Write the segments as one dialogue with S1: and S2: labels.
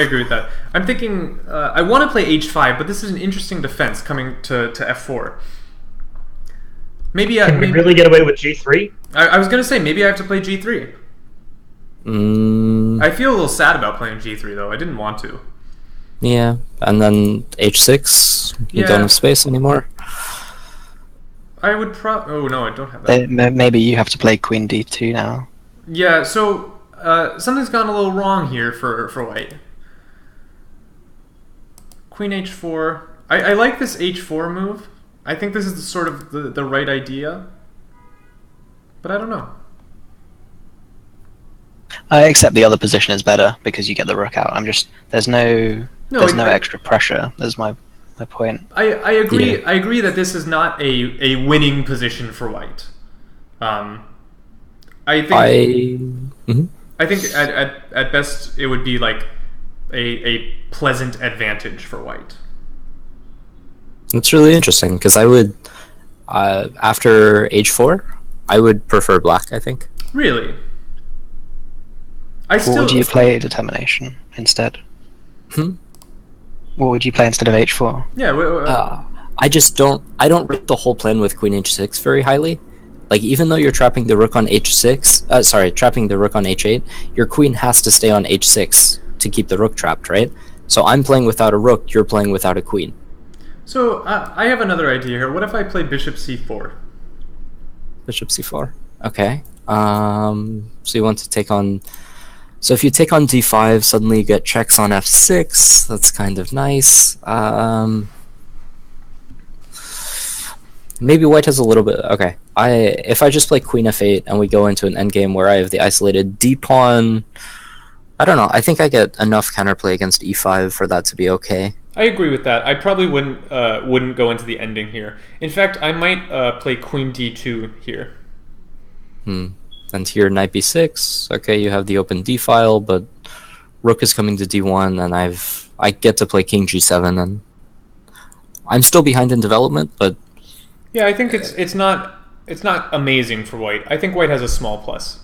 S1: I agree with that. I'm thinking uh, I want to play h5, but this is an interesting defense coming to, to f4. Maybe, I,
S2: Can we
S1: maybe
S2: really get away with G3?
S1: I, I was gonna say maybe I have to play g3.
S3: Mm,
S1: I feel a little sad about playing g3 though. I didn't want to.
S3: yeah, and then h6. You
S1: Yeah.
S3: don't have space anymore.
S1: I would pro. Oh no, I don't have that.
S4: They- Uh, m- Maybe you have to play queen d2 now.
S1: Yeah. So uh, something's gone a little wrong here for for white. Queen h4. I, I like this h4 move. I think this is the sort of the, the right idea. But I don't know.
S4: I accept Uh, the other position is better because you get the rook out. I'm just there's no,
S1: No,
S4: there's
S1: I-
S4: no
S1: I-
S4: extra pressure. That's my my point.
S1: I, I agree.
S3: Yeah.
S1: I agree that this is not a, a winning position for white. Um, I think
S3: I. mhm.
S1: I think at, at, at best it would be like a, a pleasant advantage for white.
S3: It's really interesting because I would, uh, after h4, I would prefer black. I think.
S1: Really? I
S4: What
S1: still
S4: would you play determination instead?
S3: Hmm?
S4: What would you play instead of h4?
S1: Yeah, w- w-
S4: Ah.
S3: Uh, I just don't. I don't rate the whole plan with queen h6 very highly. Like even though you're trapping the rook on h6, uh, sorry, trapping the rook on h8, your queen has to stay on h6 to keep the rook trapped, right? So I'm playing without a rook. You're playing without a queen.
S1: so uh, I have another idea here. What if I play bishop c4?
S3: Bishop c4. Okay. Um, so you want to take on. So if you take on d5, suddenly you get checks on f6. That's kind of nice. Um, maybe white has a little bit. Okay. I if I just play queen f8 and we go into an endgame where I have the isolated d pawn. I don't know. I think I get enough counterplay against e5 for that to be okay.
S1: I agree with that. I probably wouldn't uh, wouldn't go into the ending here. In fact, I might uh, play queen d2 here.
S3: Hmm. And here knight b6. Okay, you have the open d file, but rook is coming to d1, and I've I get to play king g7, and I'm still behind in development, but
S1: Yeah, I think it's it's not it's not amazing for white. I think white has a small plus.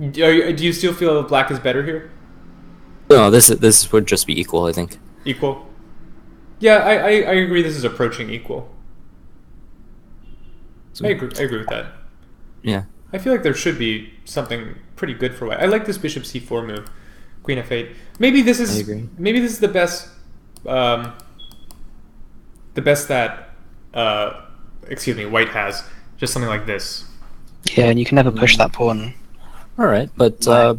S1: Do you, do you still feel that black is better here?
S3: no, this this would just be equal, I think.
S1: Equal. Yeah, I, I, I agree. This is approaching equal. I agree. I agree with that.
S3: Yeah,
S1: I feel like there should be something pretty good for white. I like this bishop c4 move, queen f8. Maybe this is
S3: I agree.
S1: maybe this is the best, um, the best that, uh, excuse me, white has. Just something like this.
S4: Yeah, and you can never
S3: Hmm.
S4: push that pawn.
S3: all right, but uh,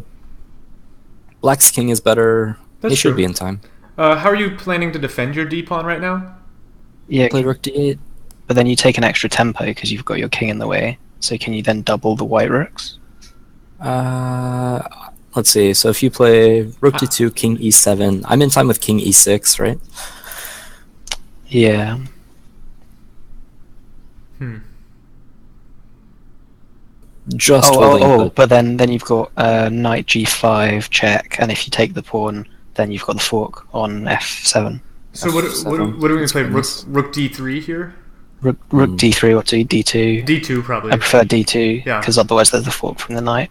S3: black's king is better.
S1: That's
S3: he should
S1: true.
S3: be in time.
S1: Uh, how are you planning to defend your d pawn right now?
S4: Yeah,
S3: Play rook d8.
S4: but then you take an extra tempo because you've got your king in the way. So can you then double the white rooks?
S3: Uh, let's see. So if you play
S1: Ah.
S3: rook d2, king e7, I'm in time with king e6, right?
S4: Yeah.
S1: Hmm.
S3: Just
S4: oh,
S3: holding.
S4: oh, oh,
S3: but-
S4: but then then you've got uh, knight g5 check, and if you take the pawn, then you've got the fork on f7.
S1: So what what,
S3: F7.
S1: what are we gonna play? Rook,
S3: nice.
S1: rook d3 here.
S4: Rook, rook d3 or d d2.
S1: d2 probably.
S4: I prefer d2
S1: Yeah.
S4: because otherwise there's the fork from the knight.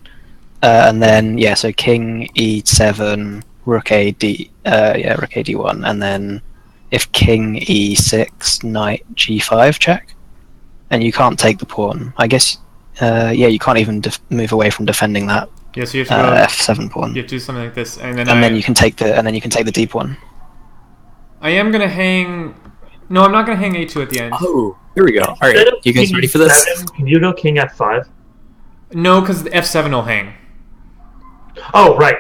S4: Uh, and then yeah, so king e7, rook a d, uh, yeah, rook a d1, and then if king e6, knight g5 check, and you can't take the pawn. I guess uh, yeah, you can't even def- move away from defending that
S1: Yeah, so you have to go,
S4: uh, f7 pawn.
S1: you have to do something like this, and then I,
S4: and then you can take the and then you can take the deep one.
S1: I am gonna hang. No, I'm not gonna hang a2 at the end.
S3: Oh, here we go. All right,
S2: Instead of
S3: you guys
S2: king
S3: ready for this?
S2: E7, Can you go king f5?
S1: No, because f7 will hang.
S2: Oh, right.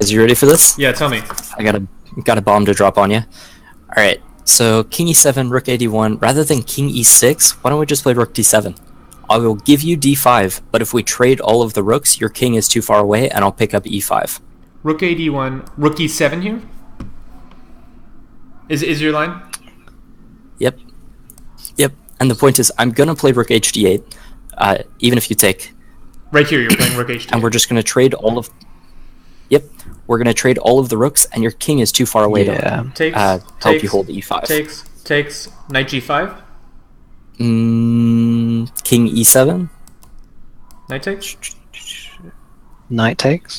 S3: Is you ready for this?
S1: Yeah, tell me.
S3: I got a got a bomb to drop on you. All right. So king e7, rook a1. Rather than king e6, why don't we just play rook d7? I will give you d5, but if we trade all of the rooks, your king is too far away, and I'll pick up E e5.
S1: Rook a d1, rook e7 here. Is is your line?
S3: Yep. Yep. And the point is, I'm gonna play rook h d8, uh, even if you take,
S1: Right here, you're playing rook h2.
S3: and we're just gonna trade all of. Yep. We're gonna trade all of the rooks, and your king is too far away
S4: Yeah.
S3: to
S1: takes,
S3: uh,
S1: takes,
S3: help you hold e5.
S1: Takes takes knight g5.
S3: Mm, king e7.
S1: Knight takes.
S4: knight takes.